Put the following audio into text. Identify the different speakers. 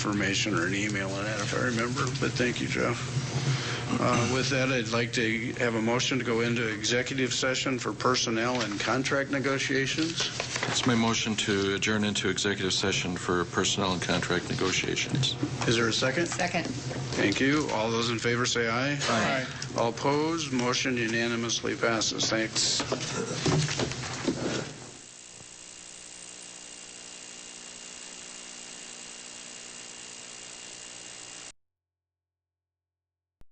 Speaker 1: information or an email on that if I remember, but thank you, Jeff. Uh, With that, I'd like to have a motion to go into executive session for personnel and contract negotiations.
Speaker 2: It's my motion to adjourn into executive session for personnel and contract negotiations.
Speaker 1: Is there a second?
Speaker 3: Second.
Speaker 1: Thank you. All those in favor say aye. Aye. All opposed, motion unanimously passes. Thanks.